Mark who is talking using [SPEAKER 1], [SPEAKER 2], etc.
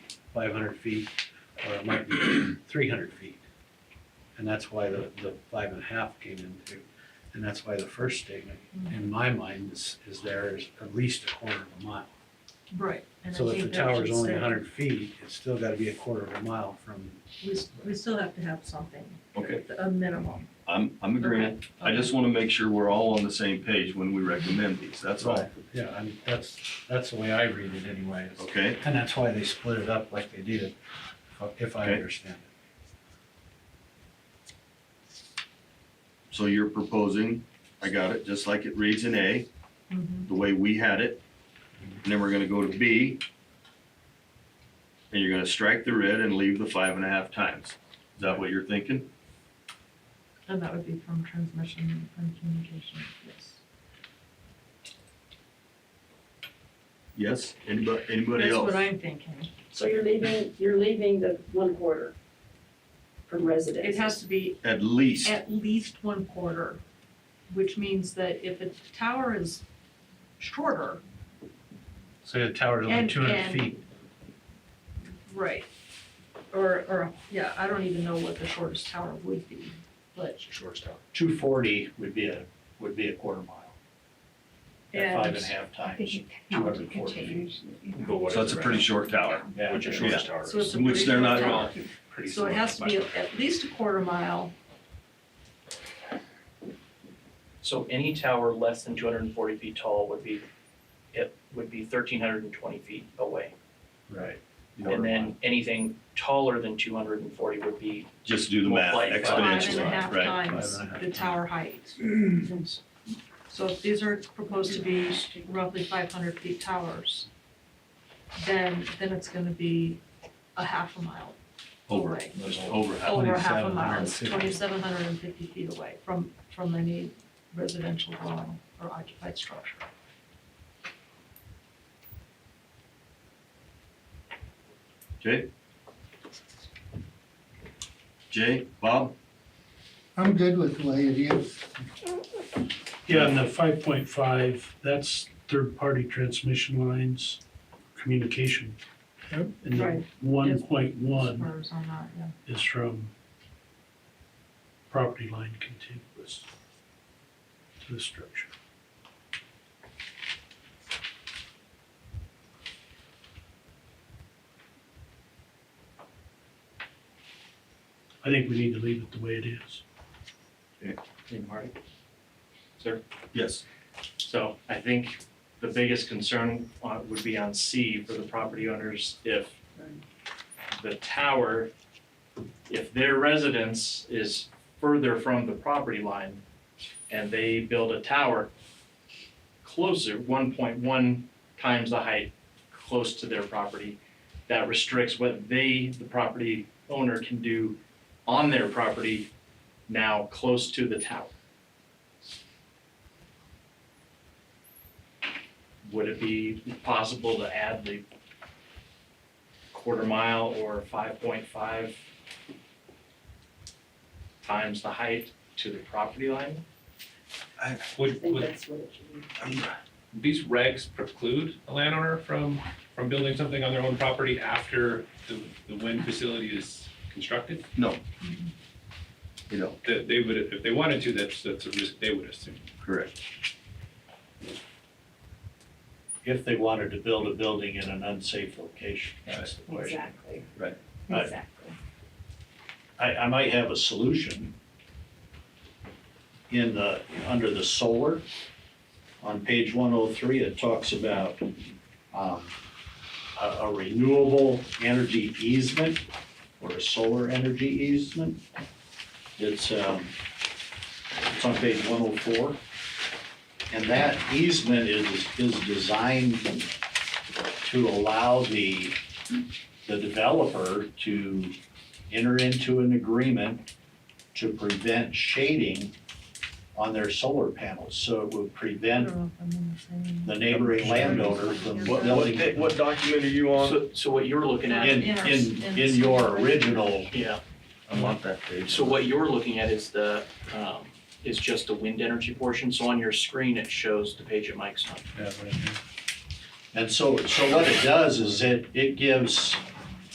[SPEAKER 1] five hundred feet, or it might be three hundred feet. And that's why the, the five and a half came into, and that's why the first statement,
[SPEAKER 2] Mm-hmm.
[SPEAKER 1] in my mind, is, is there is at least a quarter of a mile.
[SPEAKER 2] Right. and I
[SPEAKER 1] So if the
[SPEAKER 2] think that
[SPEAKER 1] tower's
[SPEAKER 2] should
[SPEAKER 1] only
[SPEAKER 2] stay.
[SPEAKER 1] hundred feet, it's still gotta be a quarter of a mile from,
[SPEAKER 2] We, s- we still have to have something,
[SPEAKER 3] Okay,
[SPEAKER 2] a minimum.
[SPEAKER 3] I'm, I'm agreeing. I just wanna make sure we're all on the same page when we recommend these, that's all,
[SPEAKER 1] yeah, I mean, that's, that's the way I read it anyway. is-
[SPEAKER 3] okay?
[SPEAKER 1] And that's why they split it up like they did, if- if I
[SPEAKER 3] Okay.
[SPEAKER 1] understand it.
[SPEAKER 3] So you're proposing, I got it, just like it reads in A,
[SPEAKER 2] Mhm.
[SPEAKER 3] the way we had it. And then we're gonna go to B. And you're gonna strike the red and leave the five and a half times. Is that what you're thinking?
[SPEAKER 2] And that would be from transmission and communication, yes.
[SPEAKER 3] Yes? Anybody, anybody
[SPEAKER 2] That's
[SPEAKER 3] else?
[SPEAKER 2] what I'm thinking.
[SPEAKER 4] So you're leaving, you're leaving the one quarter from residents?
[SPEAKER 2] It has to be
[SPEAKER 3] At least,
[SPEAKER 2] at least one quarter, which means that if the tower is shorter,
[SPEAKER 1] So the tower's only
[SPEAKER 2] And-
[SPEAKER 1] two hundred
[SPEAKER 2] and-
[SPEAKER 1] feet,
[SPEAKER 2] right? Or, or, yeah, I don't even know what the shortest tower would be, but.
[SPEAKER 5] shortest tower. Two forty would be a, would be a quarter mile, at five and a half
[SPEAKER 6] I think
[SPEAKER 5] times,
[SPEAKER 6] it counts, it
[SPEAKER 5] 240
[SPEAKER 6] continues, you know.
[SPEAKER 5] but what is
[SPEAKER 3] so it's a
[SPEAKER 5] the
[SPEAKER 3] pretty
[SPEAKER 5] rest?
[SPEAKER 3] short tower.
[SPEAKER 5] Yeah, which your shortest tower
[SPEAKER 2] So it's
[SPEAKER 5] is
[SPEAKER 2] a
[SPEAKER 3] Which
[SPEAKER 2] pretty
[SPEAKER 3] they're
[SPEAKER 2] short
[SPEAKER 3] not
[SPEAKER 2] tower.
[SPEAKER 3] wrong.
[SPEAKER 5] pretty
[SPEAKER 2] So it
[SPEAKER 5] similar
[SPEAKER 2] has to
[SPEAKER 5] by
[SPEAKER 2] be
[SPEAKER 5] far.
[SPEAKER 2] at least a quarter mile,
[SPEAKER 7] So any tower less than two hundred and forty feet tall would be, it would be thirteen hundred and twenty feet away.
[SPEAKER 1] right?
[SPEAKER 7] And then anything taller than two hundred and forty would be,
[SPEAKER 3] Just do the math
[SPEAKER 7] Multiply it by
[SPEAKER 2] five and
[SPEAKER 3] exponentially,
[SPEAKER 2] a half
[SPEAKER 3] right?
[SPEAKER 2] times
[SPEAKER 1] Five and a half
[SPEAKER 2] the
[SPEAKER 1] times.
[SPEAKER 2] tower height. So if these are proposed to be roughly five hundred feet towers, then, then it's gonna be a half a mile
[SPEAKER 3] Over,
[SPEAKER 2] away.
[SPEAKER 3] just over half.
[SPEAKER 2] Over a half a mile, it's
[SPEAKER 1] 2750.
[SPEAKER 2] twenty-seven hundred and fifty feet away from, from any residential dwelling or occupied structure.
[SPEAKER 3] Jay? Jay, Bob?
[SPEAKER 8] I'm good with the way it is.
[SPEAKER 9] Yeah, and the five point five, that's third-party transmission lines, communication.
[SPEAKER 8] Yep.
[SPEAKER 9] And the
[SPEAKER 2] Right.
[SPEAKER 9] one point
[SPEAKER 2] As
[SPEAKER 9] one
[SPEAKER 2] far as I'm not, yeah.
[SPEAKER 9] is from property line contiguous to the structure. I think we need to leave it the way it is.
[SPEAKER 5] Hey, Marty.
[SPEAKER 3] Yes.
[SPEAKER 5] So I think the biggest concern uh, would be on C for the property owners if the tower, if their residence is further from the property line and they build a tower closer, one point one times the height close to their property, that restricts what they, the property owner, can do on their property now close to the tower. would it be possible to add the quarter mile or five point five times the height to the property line?
[SPEAKER 4] I
[SPEAKER 10] Would,
[SPEAKER 4] think
[SPEAKER 10] would
[SPEAKER 4] that's what it should be.
[SPEAKER 10] these regs preclude a landowner from, from building something on their own property after the, the wind facility is constructed?
[SPEAKER 3] You know,
[SPEAKER 10] That they would, if they wanted to, that's, that's a risk they would assume.
[SPEAKER 3] correct.
[SPEAKER 5] If they wanted to build a building in an unsafe location,
[SPEAKER 3] that's
[SPEAKER 5] the
[SPEAKER 4] Exactly.
[SPEAKER 3] Right.
[SPEAKER 5] Right.
[SPEAKER 4] Exactly.
[SPEAKER 5] I, I might have a solution in the, under the solar. On page one oh three, it talks about, um, a, a renewable energy easement or a solar energy easement. It's, um, it's on page one oh four. And that easement is, is designed to allow the, the developer to enter into an agreement to prevent shading on their solar panels, so it would
[SPEAKER 2] I
[SPEAKER 5] prevent
[SPEAKER 2] don't know if I'm in the same.
[SPEAKER 5] the neighboring landowner from
[SPEAKER 3] What, what,
[SPEAKER 5] building.
[SPEAKER 3] da- what document are you on?
[SPEAKER 7] so, so what you're looking at,
[SPEAKER 5] In, in, in your original,
[SPEAKER 7] yeah,
[SPEAKER 3] I want that page.
[SPEAKER 7] so what you're looking at is the, um, is just the wind energy portion. So on your screen, it shows the page at Mike's on.
[SPEAKER 1] Yeah, right here.
[SPEAKER 5] and so, so what it does is it, it gives